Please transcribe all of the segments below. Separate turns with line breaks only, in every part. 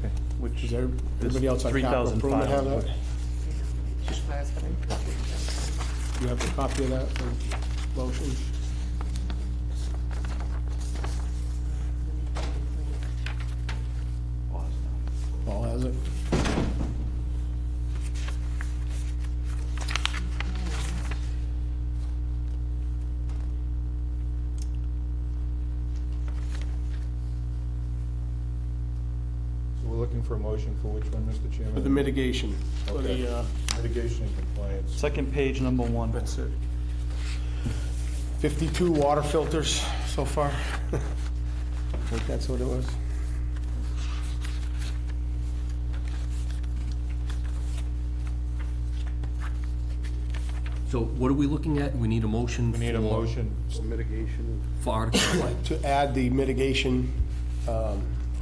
Does every- everybody else on capital improvement have that?
That's what I was gonna-
You have a copy of that, the motion? Paul has it?
So We're looking for a motion for which one, Mr. Chairman?
For the mitigation, for
Okay.
the, uh,
Mitigation and compliance.
Second page, number one.
that's it. 52 water filters so far. I think that's what it was.
So what are we looking at? We need a motion
We need a
for-
motion.
For Article what?
To add the mitigation um,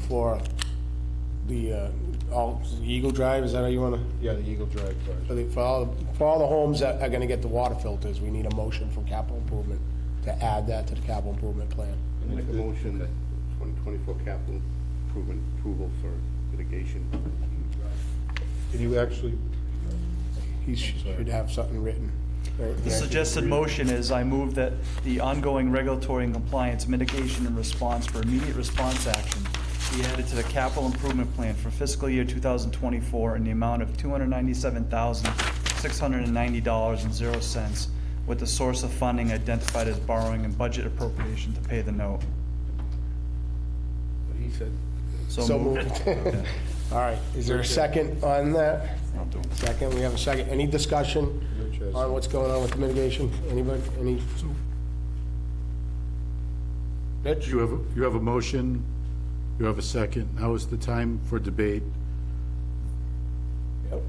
for the, uh, all, Eagle Drive, is that how you want to?
Yeah, the Eagle Drive
For the,
project.
for all, for all the homes that are gonna get the water filters, we need a motion from capital improvement to add that to the capital improvement plan.
Make a motion that 2024 capital improvement approval for litigation.
Can you actually,
He sh- should have something written. right?
The suggested motion is I move that the ongoing regulatory and compliance mitigation and response for immediate response action be added to the capital improvement plan for fiscal year 2024 in the amount of $297,690.00 with the source of funding identified as borrowing and budget appropriation to pay the note.
He said.
So moved. All right, is there a second on that? Second, we have a second. Any discussion
Rich has-
on what's going on with the mitigation? Anybody, any? Rich?
You have, a- you have a motion, you have a second. Now is the time for debate.
Yep.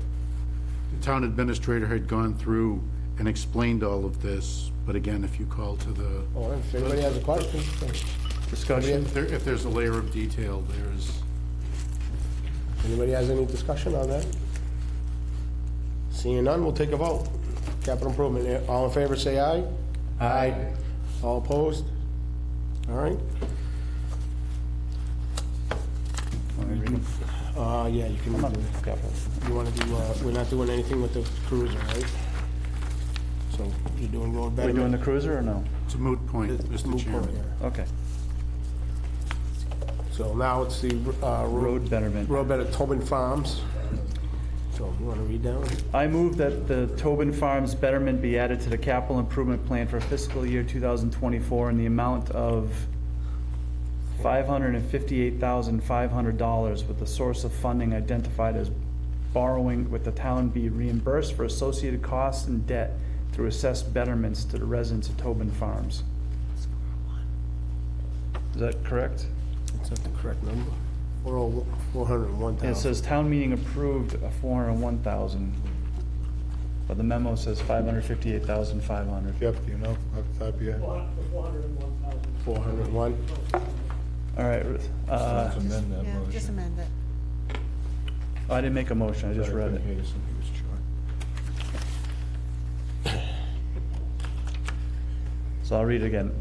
The town administrator had gone through and explained all of this, but again, if you call to the,
All right, If anybody has a question? Oh, Discussion?
if there- if there's a layer of detail, there's,
Anybody has any discussion on that? Seeing none, we'll take a vote. Capital improvement, eh, all in favor, say aye. Aye. All opposed? All right. Uh, yeah, you can, you wanna do, uh, we're not doing anything with the cruiser, right? So, you're doing road
Are we
betterment?
doing the cruiser or no?
it's a moot point, Mr.
Move forward,
Chairman.
Okay.
yeah. So now it's the, uh,
Road betterment.
Road better, Tobin Farms. So, you wanna read that one?
I move that the Tobin Farms betterment be added to the capital improvement plan for fiscal year 2024 in the amount of $558,500 with the source of funding identified as borrowing with the town be reimbursed for associated costs and debt through assessed betterments to the residents of Tobin Farms. Is that correct?
Is that the correct number? Four oh, four hundred and one
It
thousand.
says town meeting approved a four hundred and one thousand, but the memo says five hundred fifty-eight thousand five hundred.
Jeff, do you know, off the top of your
Uh,
head?
Four hundred and one.
All right, Ruth, uh,
Let's amend that
Yeah, just
motion.
amend it.
oh, I didn't make a motion, I just
Sorry,
read
couldn't
it.
hear you, somebody was short.
So I'll read it again.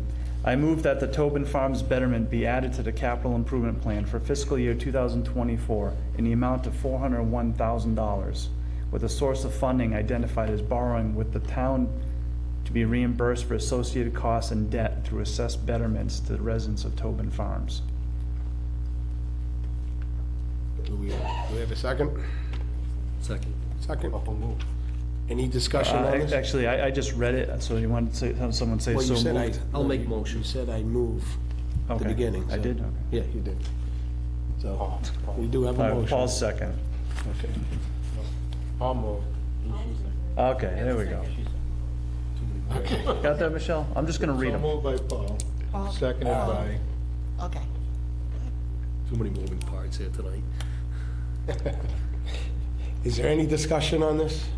I move that the Tobin Farms betterment be added to the capital improvement plan for fiscal year two thousand twenty-four in the amount of four hundred and one thousand dollars, with a source of funding identified as borrowing with the town to be reimbursed for associated costs and debt through assessed betterments to the residents of Tobin Farms.
Do we, do we have a second?
Second.
Second? Any discussion
Uh,
on
ac-
this?
Actually, I, I just read it, so you want to say, have someone say
Well,
so
you said I.
moved?
I'll make motion.
You said I move at the
Okay.
beginning.
I
so-
did, okay.
Yeah, you did.
Oh,
So, we do have
All
a
right, Paul's
motion.
second.
I'll move.
Okay, there we go. Got that, Michelle? I'm just gonna read
So
them.
moved by Paul,
Paul?
seconded by,
Okay.
Too many moving parts here tonight.
Is there any discussion on this?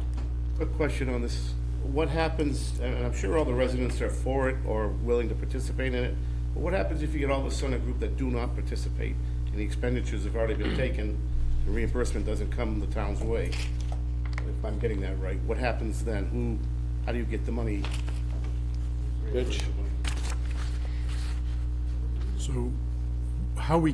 Quick question on this. What happens, and I'm sure all the residents are for it or willing to participate in it, but what happens if you get all of a sudden a group that do not participate and the expenditures have already been taken, the reimbursement doesn't come the town's way? If I'm getting that right, what happens then? Who, how do you get the money?
Rich?
So how we